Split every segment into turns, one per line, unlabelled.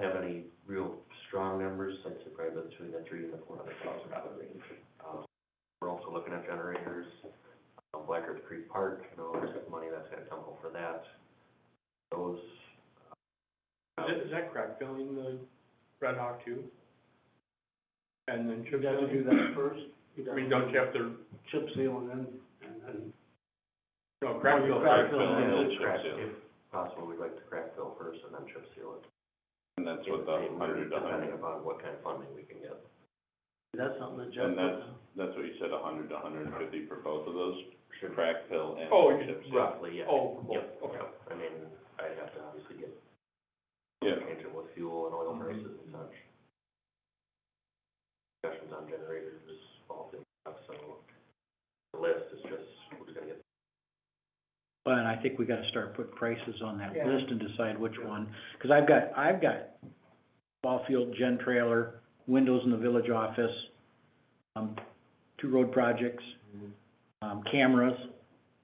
have any real strong numbers, I'd say probably between the three and the four hundred thousand dollar range. Um, We're also looking at generators, um, Black Earth Creek Park, you know, there's money that's gonna come over that. Those. uh,
Is that, is that crack filling the Red Hawk too? And then chip
You'd have to do
sealing?
that first. You'd
I
have
mean,
to
don't you have to,
Chip seal and then, and then,
no, crack fill.
Oh, you crack
first,
fill,
and
yeah.
then-
If crack- If possible, we'd like to crack fill first and then chip seal it.
And that's what the hundred to
Depending
hundred,
upon what kind of funding we can get.
that's something that Jeff.
and that's, that's what you said, a hundred to hundred and fifty for both of those,
Should-
crack fill and
Oh, you-
chip seal.
Roughly, yeah.
Oh, for both,
Yep,
okay.
yep. I mean, I'd have to obviously get
Yeah,
change it with fuel and oil prices and such. Discussions on generators, all things, so the list is just, we're just gonna get
Well, and I think we gotta start putting prices on that
Yeah.
list and decide which one, cause I've got, I've got ball field, gen trailer, windows in the village office, um, two road projects, um, cameras,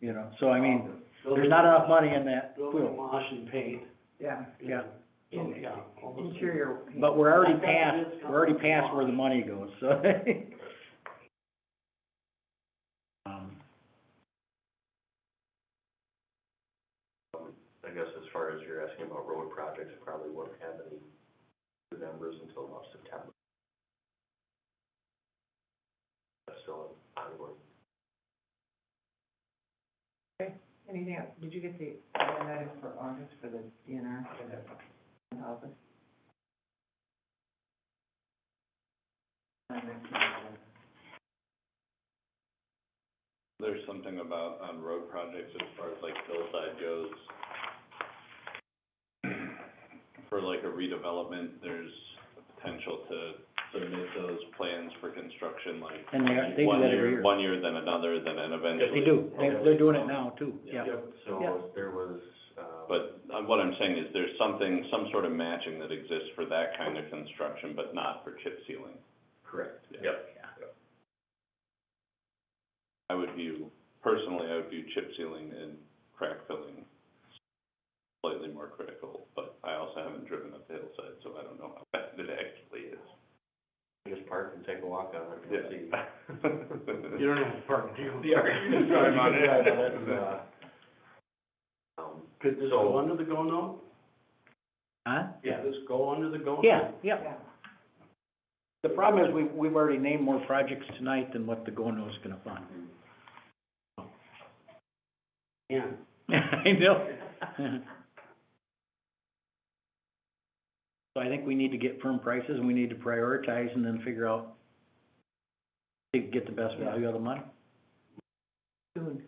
you know, so I mean, there's not enough money in that
Building
pool.
wash and paint.
Yeah,
Yeah,
So, yeah, all those things.
interior.
but we're already past, we're already past where the money goes, so. Um,
I guess as far as you're asking about road projects, I probably won't have any good numbers until about September. That's still ongoing.
Anything else? Did you get the agenda item for August for the DNR for the office?
there's something about on road projects as far as like hillside goes. For like a redevelopment, there's a potential to submit those plans for construction like
and they, they do
one
that
year,
every year.
one year, then another, then an eventually.
They do, they, they're doing it now too, yeah. Yeah.
So there was, uh.
But uh, what I'm saying is there's something, some sort of matching that exists for that kind of construction, but not for chip sealing.
Correct.
Yeah.
Yep.
I would view, personally, I would view chip sealing and crack filling slightly more critical, but I also haven't driven up the hillside, so I don't know how bad it actually is.
Just park and take a walk on it and see.
You don't have to park, do you? You
Yeah.
can drive on it.
Drive on it and, uh, Um,
Could this
So-
go under the go note?
Huh?
Could this go under the go note?
Yeah, yeah.
Yeah.
The problem is, we've, we've already named more projects tonight than what the GONO's gonna fund.
Yeah.
I know. So I think we need to get firm prices, and we need to prioritize, and then figure out to get the best value out of the money.
Soon.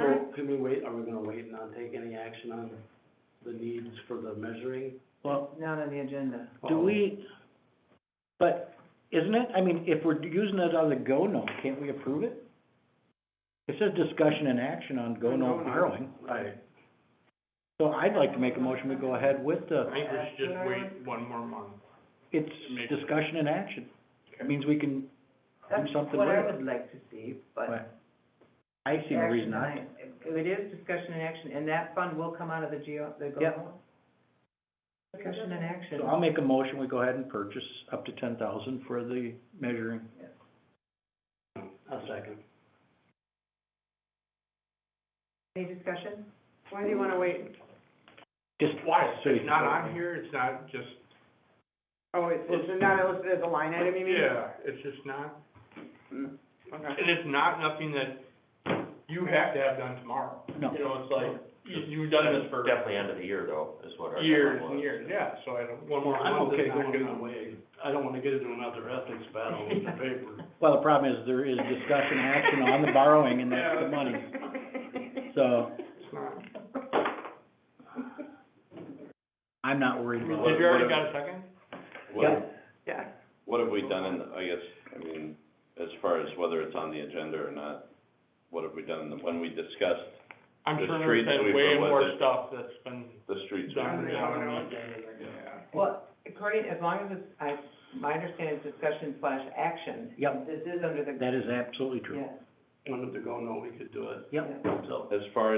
So can we wait, are we gonna wait and not take any action on the needs for the measuring?
Well,
Not on the agenda.
do we, but isn't it, I mean, if we're using it on the GONO, can't we approve it? It says discussion and action on GONO borrowing.
Right.
So I'd like to make a motion, we go ahead with
I
the,
think we should just wait one more month.
it's
Make-
discussion and action. It means we can,
That's
something
what I
with it.
would like to see, but.
but I see no reason not to.
action item. It is discussion and action, and that fund will come out of the GO, the GO.
Yep.
Discussion and action.
So I'll make a motion, we go ahead and purchase up to ten thousand for the measuring.
A second.
Any discussion? Why do you wanna wait?
Just
Why, Oh, it's not on here, it's not just,
Oh, it's,
it's
not listed as a line
yeah, it's just not, and it's not nothing that you have to have done tomorrow.
No.
You know, it's like, you, you've done this for
Definitely end of the year though, is what our.
years
deadline
and
was.
years, yeah, so I don't, one more
Well, I'm
month is
okay
not
going
gonna.
that way. I don't wanna get into another ethics battle with the paper.
Well, the problem is there is discussion and action on the borrowing and that's the money. So
It's not.
I'm not worried
Did
about it.
you already got a second?
Yeah.
What,
Yeah.
what have we done in, the- I guess, I mean, as far as whether it's on the agenda or not, what have we done, when we discussed
I'm
The
sure
street
there's been way
sweeper was
more
it?
stuff that's been
the streets?
done than I
Yeah.
would
Well, according, as long as it's, I, my understanding is discussion slash action.
Yep.
This is under the.
That is absolutely true.
Yes.
Under the go note, we could do it,
Yep.
so.
As far